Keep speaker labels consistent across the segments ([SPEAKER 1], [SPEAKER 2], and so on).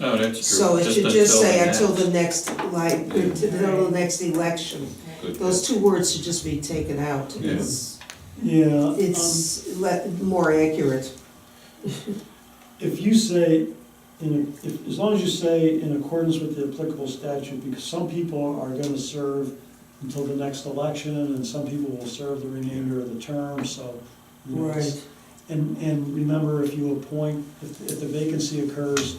[SPEAKER 1] No, Oh, that's true.
[SPEAKER 2] So it should just say until
[SPEAKER 1] that.
[SPEAKER 2] the next, like, until the next election.
[SPEAKER 1] Good.
[SPEAKER 2] Those two words should just be taken out.
[SPEAKER 1] Yeah.
[SPEAKER 2] It's,
[SPEAKER 3] Yeah, um,
[SPEAKER 2] it's le- more accurate.
[SPEAKER 3] if you say, in, a- if, as long as you say in accordance with the applicable statute, because some people are gonna serve until the next election, and some people will serve the remainder of the term, so. you know, it's- And, and remember, if you appoint, if, if the vacancy occurs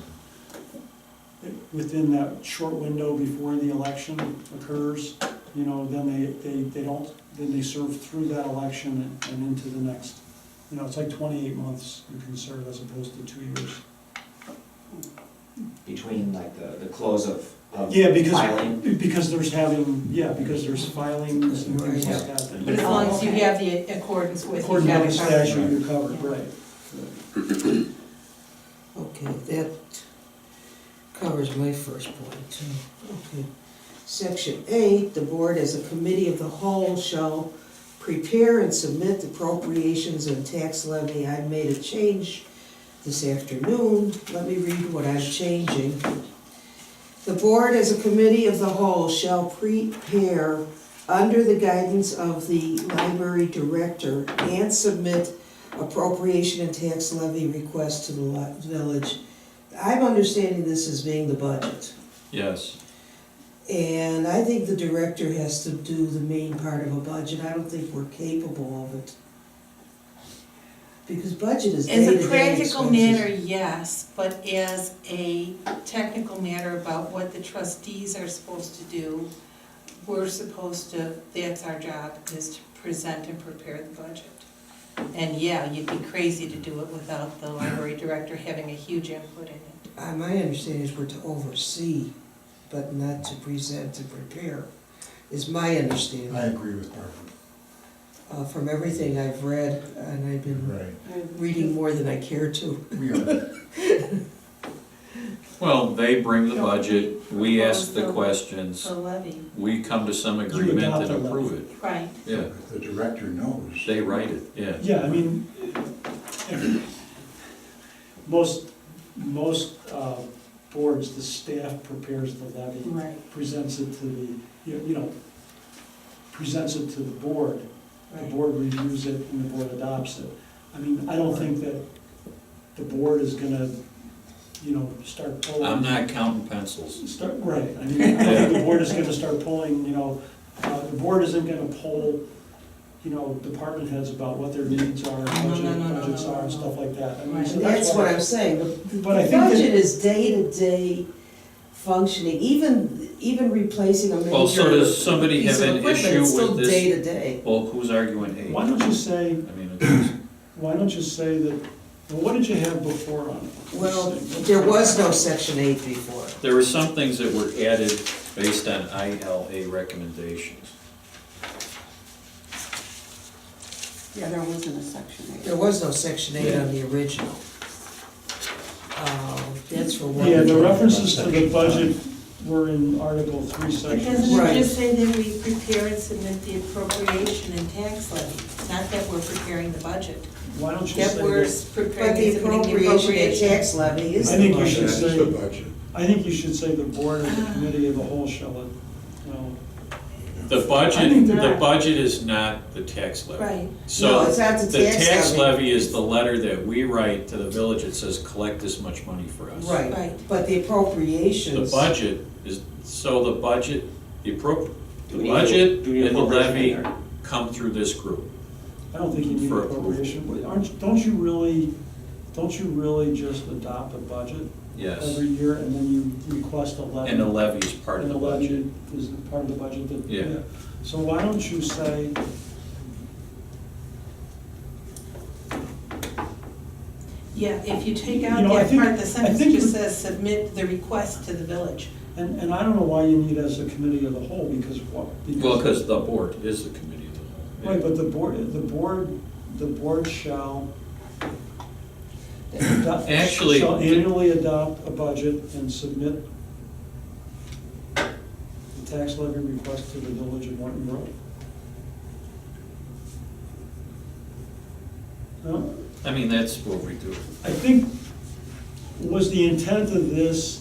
[SPEAKER 3] within that short window before the election occurs, you know, then they, they, they don't, then they serve through that election and into the next. You know, it's like twenty-eight months you can serve as opposed to two years.
[SPEAKER 4] between like the, the close of, of
[SPEAKER 3] Yeah, because,
[SPEAKER 4] filing.
[SPEAKER 3] because there's having, yeah, because there's filings and things like that.
[SPEAKER 5] But as long as you have the accordance with.
[SPEAKER 3] According to the
[SPEAKER 5] you've got it covered.
[SPEAKER 3] statute, you're covered, right.
[SPEAKER 2] Okay, that covers my first point too. Okay. Section eight, the board as a committee of the whole shall prepare and submit appropriations and tax levy. I made a change this afternoon. Let me read what I'm changing. The board as a committee of the whole shall prepare under the guidance of the library director and submit appropriation and tax levy request to the li- village. I'm understanding this as being the budget,
[SPEAKER 1] Yes,
[SPEAKER 2] and I think the director has to do the main part of a budget, I don't think we're capable of it. Because budget is
[SPEAKER 5] As
[SPEAKER 2] day-to-day
[SPEAKER 5] a practical
[SPEAKER 2] expenses.
[SPEAKER 5] matter, yes, but as a technical matter about what the trustees are supposed to do, we're supposed to, that's our job, is to present and prepare the budget. And yeah, you'd be crazy to do it without the library director having a huge input in it.
[SPEAKER 2] Uh, my understanding is we're to oversee, but not to present and prepare, is my understanding.
[SPEAKER 6] I agree with Barbara,
[SPEAKER 2] Uh, from everything I've read, and I've been
[SPEAKER 6] right.
[SPEAKER 2] reading more than I care to.
[SPEAKER 6] We are,
[SPEAKER 1] well, they bring the budget, we ask the
[SPEAKER 5] Yeah.
[SPEAKER 1] questions,
[SPEAKER 5] The levy,
[SPEAKER 1] we come to some
[SPEAKER 3] adopt
[SPEAKER 1] agreement and
[SPEAKER 3] the levy.
[SPEAKER 1] approve
[SPEAKER 5] right.
[SPEAKER 1] it. Yeah,
[SPEAKER 6] if the director knows.
[SPEAKER 1] they write it, yeah.
[SPEAKER 3] Yeah, I mean, most, most uh, boards, the staff prepares the levy,
[SPEAKER 5] Right.
[SPEAKER 3] presents it to the, you you know, presents it to the board, the board reviews it, and the board adopts it. I mean, I don't think that the board is gonna, you know, start pulling.
[SPEAKER 1] I'm not counting pencils.
[SPEAKER 3] Start, right, I mean, I think the board is gonna start pulling, you know, uh, the board isn't gonna poll, you know, department heads about what their needs are,
[SPEAKER 5] no, no,
[SPEAKER 3] budget,
[SPEAKER 5] no, no,
[SPEAKER 3] budgets are, and
[SPEAKER 5] no, no.
[SPEAKER 3] stuff like that. I mean,
[SPEAKER 5] Right.
[SPEAKER 3] so
[SPEAKER 2] And that's what
[SPEAKER 3] why-
[SPEAKER 2] I'm saying, the
[SPEAKER 3] But I
[SPEAKER 2] the
[SPEAKER 3] think that-
[SPEAKER 2] budget is day-to-day functioning, even, even replacing a major.
[SPEAKER 1] Well, so does somebody
[SPEAKER 2] piece
[SPEAKER 1] have
[SPEAKER 2] of
[SPEAKER 1] an
[SPEAKER 2] equipment,
[SPEAKER 1] issue
[SPEAKER 2] it's
[SPEAKER 1] with
[SPEAKER 2] Still
[SPEAKER 1] this?
[SPEAKER 2] day-to-day.
[SPEAKER 1] Well, who's arguing eight?
[SPEAKER 3] Why don't you say,
[SPEAKER 1] I mean, it's-
[SPEAKER 3] why don't you say that, well, what did you have before on?
[SPEAKER 2] Well, there was no section eight before.
[SPEAKER 1] there were some things that were added based on ILA recommendations.
[SPEAKER 7] Yeah, there wasn't a section eight.
[SPEAKER 2] There was no section eight on the original. Uh, That's for one.
[SPEAKER 3] Yeah, the references to the budget were in Article Three,
[SPEAKER 5] But
[SPEAKER 3] Section
[SPEAKER 5] doesn't
[SPEAKER 2] Right.
[SPEAKER 5] it just say that we prepare and submit the appropriation and tax levy? Not that we're preparing the budget,
[SPEAKER 3] Why don't you
[SPEAKER 5] that
[SPEAKER 3] say
[SPEAKER 5] we're
[SPEAKER 3] that?
[SPEAKER 2] But
[SPEAKER 5] preparing
[SPEAKER 2] the
[SPEAKER 5] and submitting the
[SPEAKER 2] appropriation and
[SPEAKER 5] appropriation.
[SPEAKER 2] tax levy is
[SPEAKER 3] I
[SPEAKER 2] the
[SPEAKER 3] think you
[SPEAKER 2] budget.
[SPEAKER 3] should
[SPEAKER 6] That's
[SPEAKER 3] say-
[SPEAKER 6] the budget.
[SPEAKER 3] I think you should say the board or
[SPEAKER 5] Uh-huh.
[SPEAKER 3] the committee of the whole shall, you know,
[SPEAKER 1] The budget, the budget is not the tax levy.
[SPEAKER 5] Right.
[SPEAKER 1] So,
[SPEAKER 2] No, it's not the tax
[SPEAKER 1] tax
[SPEAKER 2] levy.
[SPEAKER 1] levy is the letter that we write to the village that says, collect this much money for us.
[SPEAKER 2] Right,
[SPEAKER 5] Right.
[SPEAKER 2] but the
[SPEAKER 1] The
[SPEAKER 2] appropriations.
[SPEAKER 1] budget is, so the budget, the appro,
[SPEAKER 4] Do
[SPEAKER 1] the
[SPEAKER 4] we need to-
[SPEAKER 1] budget
[SPEAKER 4] do we need
[SPEAKER 1] and the
[SPEAKER 4] appropriation
[SPEAKER 1] levy
[SPEAKER 4] in there?
[SPEAKER 1] come through this group.
[SPEAKER 3] I don't think you need
[SPEAKER 1] For
[SPEAKER 3] appropriation, Wait, aren't, don't you really, don't you really just adopt a budget
[SPEAKER 1] Yes,
[SPEAKER 3] every year and then you request a
[SPEAKER 4] Uh,
[SPEAKER 3] levy?
[SPEAKER 1] and the levy is part of
[SPEAKER 3] And
[SPEAKER 1] the budget.
[SPEAKER 3] levy Is part of the budget that?
[SPEAKER 1] Yeah.
[SPEAKER 3] So why don't you say,
[SPEAKER 5] Yeah, if you take
[SPEAKER 3] You
[SPEAKER 5] out
[SPEAKER 3] know, I
[SPEAKER 5] that
[SPEAKER 3] think-
[SPEAKER 5] part, the
[SPEAKER 3] I
[SPEAKER 5] sentence
[SPEAKER 3] think
[SPEAKER 5] just
[SPEAKER 3] we-
[SPEAKER 5] says, submit the request to the village.
[SPEAKER 3] and, and I don't know why you need as a committee of the whole, because what?
[SPEAKER 1] Well, because the board is the committee of the whole.
[SPEAKER 3] Right, but the board, the board, the board shall. adopt-
[SPEAKER 1] Actually-
[SPEAKER 3] Shall annually adopt a budget and submit the tax levy request to the village of Morton Grove. No,
[SPEAKER 1] I mean, that's what we do.
[SPEAKER 3] I think, was the intent of this